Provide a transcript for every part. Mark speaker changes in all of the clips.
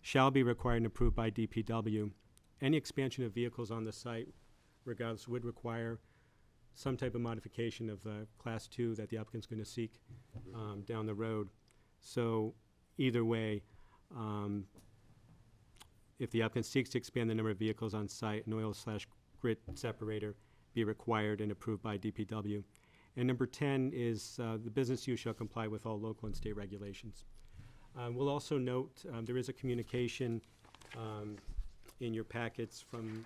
Speaker 1: shall be required and approved by DPW. Any expansion of vehicles on the site regardless would require some type of modification of the Class 2 that the applicant's going to seek um, down the road. So either way, um, if the applicant seeks to expand the number of vehicles on site, an oil slash grit separator be required and approved by DPW. And number 10 is uh, the business use shall comply with all local and state regulations. Uh, We'll also note, um, there is a communication um, in your packets from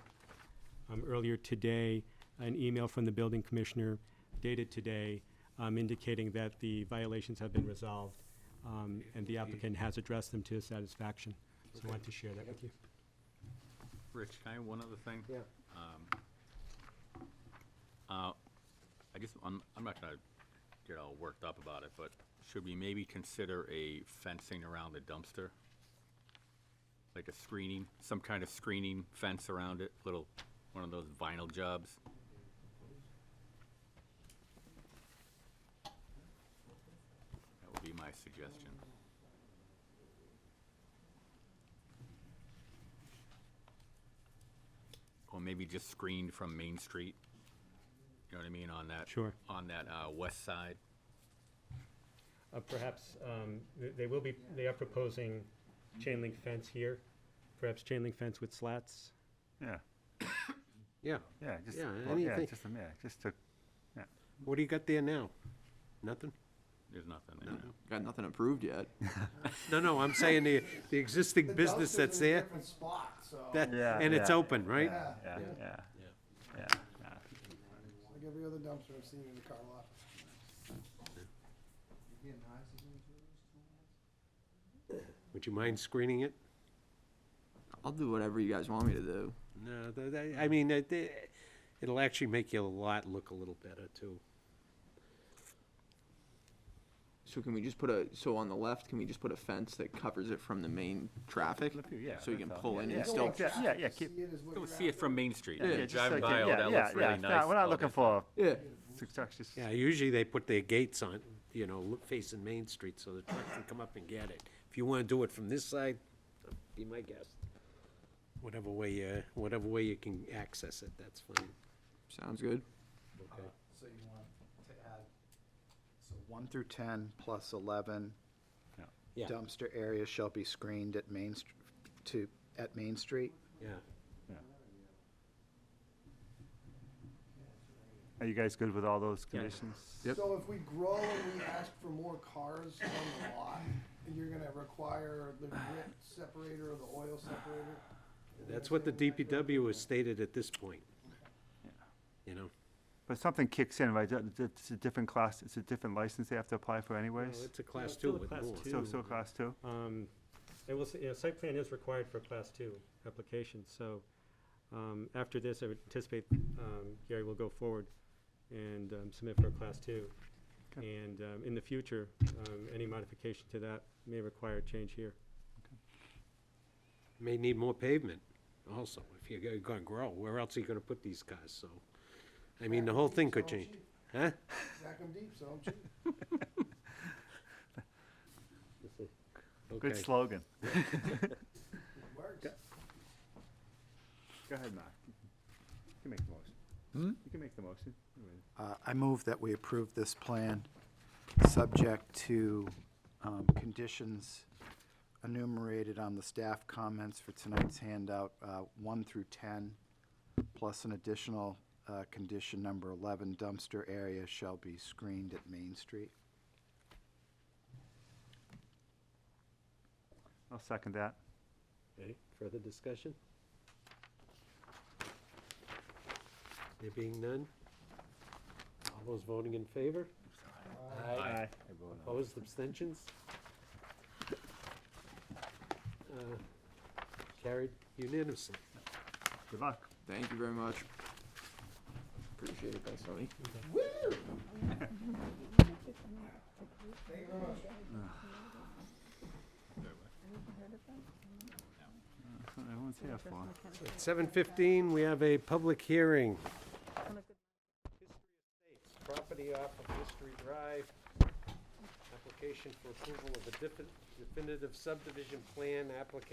Speaker 1: um, earlier today, an email from the building commissioner dated today um, indicating that the violations have been resolved um, and the applicant has addressed them to his satisfaction. So I wanted to share that with you.
Speaker 2: Rich, can I have one other thing?
Speaker 1: Yeah.
Speaker 2: Um, uh, I guess, I'm, I'm not gonna get all worked up about it, but should we maybe consider a fencing around the dumpster? Like a screening, some kind of screening fence around it, little, one of those vinyl jobs? That would be my suggestion. Or maybe just screened from Main Street, you know what I mean, on that?
Speaker 1: Sure.
Speaker 2: On that, uh, west side.
Speaker 1: Uh, Perhaps, um, th- they will be, they are proposing chain link fence here, perhaps chain link fence with slats.
Speaker 3: Yeah,
Speaker 4: Yeah,
Speaker 3: yeah, just,
Speaker 4: Yeah,
Speaker 3: well, yeah,
Speaker 4: anything.
Speaker 3: just, yeah, just to, yeah.
Speaker 4: what do you got there now? Nothing?
Speaker 2: There's nothing there.
Speaker 3: Mm.
Speaker 2: now.
Speaker 5: Got nothing approved yet.
Speaker 4: No, no, I'm saying the, the existing business that's there,
Speaker 6: Different spot, so, like
Speaker 4: that,
Speaker 3: Yeah,
Speaker 4: and it's
Speaker 3: yeah.
Speaker 4: open, right?
Speaker 3: Yeah, yeah, yeah. yeah.
Speaker 6: every other dumpster I've seen in the car lot.
Speaker 4: Would you mind screening it?
Speaker 5: I'll do whatever you guys want me to do.
Speaker 4: No, th- th- I mean, it- it- it'll actually make your lot look a little better, too.
Speaker 5: So can we just put a, so on the left, can we just put a fence that covers it from the main traffic?
Speaker 3: Flip you, yeah,
Speaker 5: So you can
Speaker 3: that's all.
Speaker 5: pull in
Speaker 3: Yeah,
Speaker 5: and
Speaker 3: yeah.
Speaker 5: still,
Speaker 3: Yeah, yeah, yeah, keep-
Speaker 6: See it is what
Speaker 2: Go
Speaker 6: you're
Speaker 2: see it
Speaker 6: after.
Speaker 2: from Main Street.
Speaker 5: Yeah,
Speaker 2: You
Speaker 3: just
Speaker 2: drive
Speaker 3: like,
Speaker 2: by,
Speaker 3: yeah,
Speaker 2: oh, that
Speaker 3: yeah,
Speaker 2: looks
Speaker 3: yeah.
Speaker 2: really
Speaker 3: No,
Speaker 2: nice. Oh,
Speaker 3: We're
Speaker 2: all
Speaker 3: not looking
Speaker 2: this-
Speaker 3: for
Speaker 5: yeah,
Speaker 3: structures.
Speaker 4: Yeah, usually they put their gates on, you know, lo- facing Main Street, so the truck can come up and get it. If you wanna do it from this side, be my guest. Whatever way, you whatever way you can access it, that's fine.
Speaker 5: sounds good.
Speaker 6: So you want to add, so one through ten plus eleven.
Speaker 3: Yeah.
Speaker 4: Yeah.
Speaker 6: Dumpster areas shall be screened at Main, Str- to, at Main Street.
Speaker 4: Yeah.
Speaker 3: Are you guys good with all those conditions?
Speaker 5: Yep.
Speaker 7: So if we grow and we ask for more cars on the lot, you're gonna require the grit separator or the oil separator?
Speaker 4: That's what the DPW has stated at this point. You know,
Speaker 3: But something kicks in, right? That- that- It's a different class, it's a different license they have to apply for anyways?
Speaker 4: it's a class
Speaker 1: still
Speaker 4: two Oh,
Speaker 1: a
Speaker 4: with
Speaker 1: class
Speaker 4: more.
Speaker 1: two.
Speaker 3: So, so class two?
Speaker 1: Um, I will say, you know, site plan is required for class two applications, so, um, after this, I would anticipate, um, Gary will go forward and, um, submit for a class two.
Speaker 3: Okay.
Speaker 1: And, um, in the future, um, any modification to that may require a change here.
Speaker 4: May need more pavement also, if you're go- gonna grow. Where else are you gonna put these cars, so? I mean, the whole thing could
Speaker 7: Sell 'em
Speaker 4: change,
Speaker 7: cheap.
Speaker 4: huh?
Speaker 7: Stack 'em deep, so I'm cheap.
Speaker 3: Good
Speaker 4: Okay.
Speaker 3: slogan.
Speaker 7: It works.
Speaker 3: Go ahead, Mark. You can make the motion.
Speaker 2: Hmm?
Speaker 3: You can make the motion.
Speaker 6: Uh, I move that we approve this plan, subject to um, conditions enumerated on the staff comments for tonight's handout, uh, 1 through 10, plus an additional uh, condition number 11, dumpster area shall be screened at Main Street.
Speaker 3: I'll second that.
Speaker 4: Okay, further discussion? There being none? All those voting in favor? Aye.
Speaker 3: Aye.
Speaker 4: Opposed, abstentions? Uh, Carried unanimously.
Speaker 3: Good luck.
Speaker 5: Thank you very much. Appreciate it, thanks, Tony.
Speaker 3: That's what everyone's here for.
Speaker 4: At 7:15, we have a public hearing. Property off of History Drive, application for approval of a defi- definitive subdivision plan, applicant